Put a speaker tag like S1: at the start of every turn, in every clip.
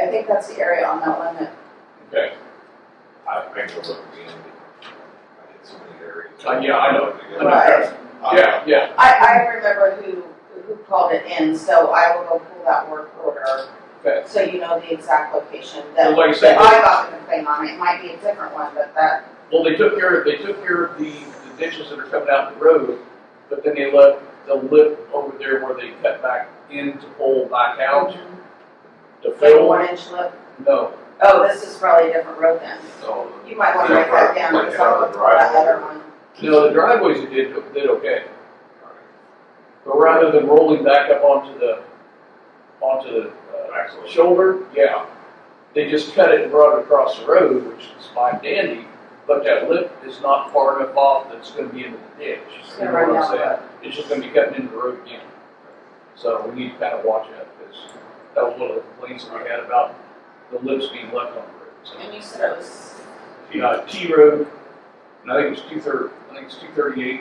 S1: I think that's the area on that one that,
S2: Okay.
S3: I think it would be in, I did so many areas.
S2: Uh, yeah, I know.
S3: Yeah.
S1: Right.
S3: Uh,
S2: Yeah, yeah,
S1: I, I remember who, who called it in, so I will go pull that work order,
S2: okay.
S1: so you know the exact location
S2: Well,
S1: that,
S2: like I
S1: that
S2: said,
S1: I got the complaint on, it might be a different one, but that,
S2: well, they took care of, they took care of the, the ditches that are coming out the road, but then they left the lip over there where they cut back in to pull back out to
S1: like
S2: fill.
S1: one inch lip.
S2: No,
S1: Oh, this is probably a different road then,
S2: no,
S1: you might wanna write that down,
S3: Yeah,
S1: because I'll
S3: like
S1: look for that
S3: the
S1: other one.
S2: no, the driveways they did, did okay. But rather than rolling back up onto the, onto the, uh,
S3: Actually,
S2: shoulder, yeah. They just cut it and brought it across the road, which is fine dandy, but that lip is not far enough off that it's gonna be into the ditch.
S1: Just
S2: You
S1: gonna
S2: know
S1: run
S2: what I'm
S1: down the
S2: saying?
S1: road.
S2: It's just gonna be cutting into the road again. So we need to kind of watch out, because that was one of the complaints that we had about the lips being left on the road. So,
S1: And you said it was,
S2: Uh, T Road, and I think it's two thirty, I think it's two thirty-eight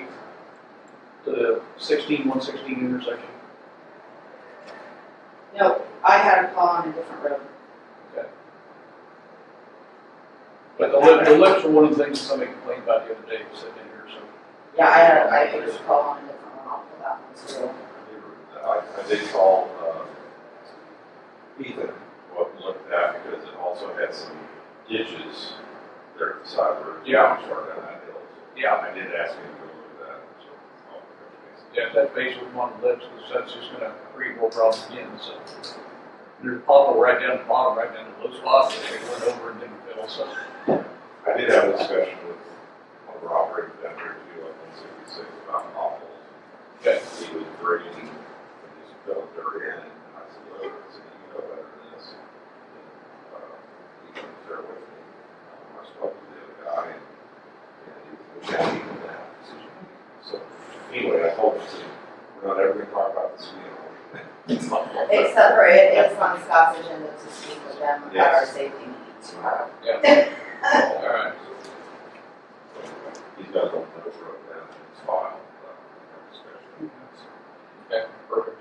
S2: to the sixteen, one sixteen intersection.
S1: no, I had a call on a different road.
S2: But the lip, the lips were one of the things somebody complained about the other day, sitting in here, so.
S1: Yeah, I had, I had a call on a different one, I'll pull that one too.
S3: I, I did call, uh, Ethan, what looked at, because it also had some ditches there at the side of the road.
S2: Yeah.
S3: Short down that hill.
S2: Yeah.
S3: I did ask him to go look at that, so. oh, I'll touch base.
S2: Yeah, that base with one lips, because that's just gonna create more problems again, so. There's a pothole right down the bottom, right down the low spot, and they went over and didn't fill, so.
S3: I did have a discussion with one of our operators down there too, like one sixty-six about potholes.
S2: Okay.
S3: He was bringing, and just felt dirt in, and I said, look, I said, you know better than this. And, uh, He was there with me, Um, I spoke to the other guy, and, and he was happy with that decision. So, anyway, I told him, I said, we're not ever gonna talk about this, you know.
S1: Except for it is on Scott's agenda to speak with them about our
S3: Yes.
S1: safety needs tomorrow.
S2: All right.
S3: He's got a little note wrote down in his file, uh, discussion.
S2: Perfect.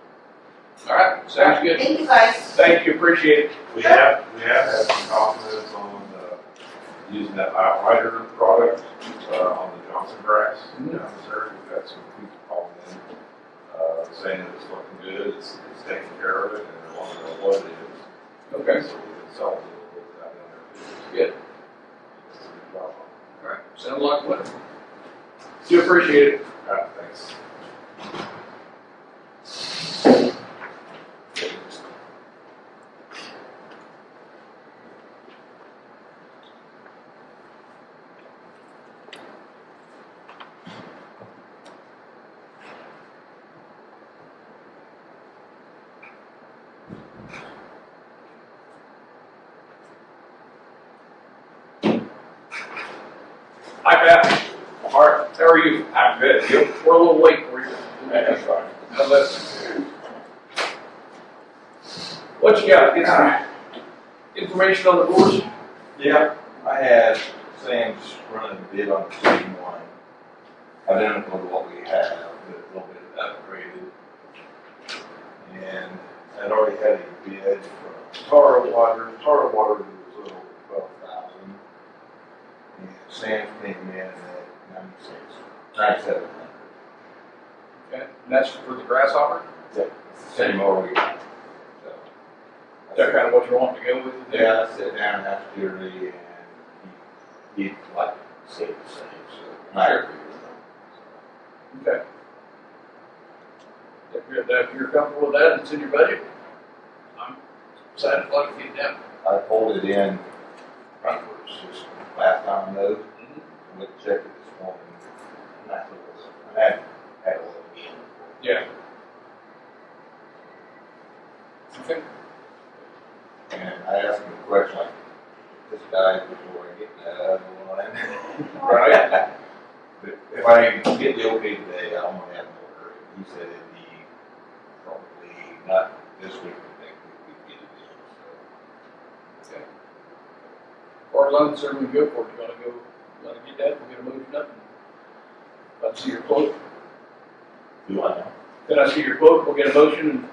S2: All right, sounds good.
S1: Thank you guys.
S2: Thank you, appreciate it.
S3: We have, we have had some confidence on, uh, using that outrider product, uh, on the Johnson grass.
S2: Mhm.
S3: down there. We've got some people calling in, uh, saying that it's looking good, it's, it's taking care of it, and they want to know what it is. So we can sell it a little bit of that down there.
S2: Good.
S3: It's a good job.
S2: All right, sounds like what? Do appreciate it.
S3: All right, thanks.
S2: Hi, Pat. All right, how are you?
S3: I'm good, you?
S2: We're a little late for you.
S3: That's fine.
S2: Now listen. What you got? Get some information on the boards?
S4: Yeah, I had Sam's running a bid on the same one, identical to what we have, but a little bit upgraded. And I'd already had a bid from Tara Water, Tara Water was a little twelve thousand. And Sam's came in at ninety-six, ninety-seven hundred.
S2: Okay, and that's for the grasshopper?
S4: Same over again, so.
S2: Is that kind of what you want to go with?
S4: Yeah, I sat down after Jerry and he, he like said the same, so I agree with him.
S2: Okay. If you're, if you're comfortable with that, it's in your budget. I'm excited about it getting down.
S4: I pulled it in frontwards just last time though, and went to check it this morning. And I thought, I had, had a little bit.
S2: Yeah. Okay.
S4: And I asked him a question like, this guy before I get that other one.
S2: Right.
S4: But if I get the okay today, I'm gonna have more. hurry. He said it'd be probably not this week, but next week we'd get it in, so.
S2: Or loan certainly good for it. You wanna go, you wanna get that, we're gonna move it up. If I see your quote,
S4: Do I know?
S2: then I see your quote, we'll get a motion and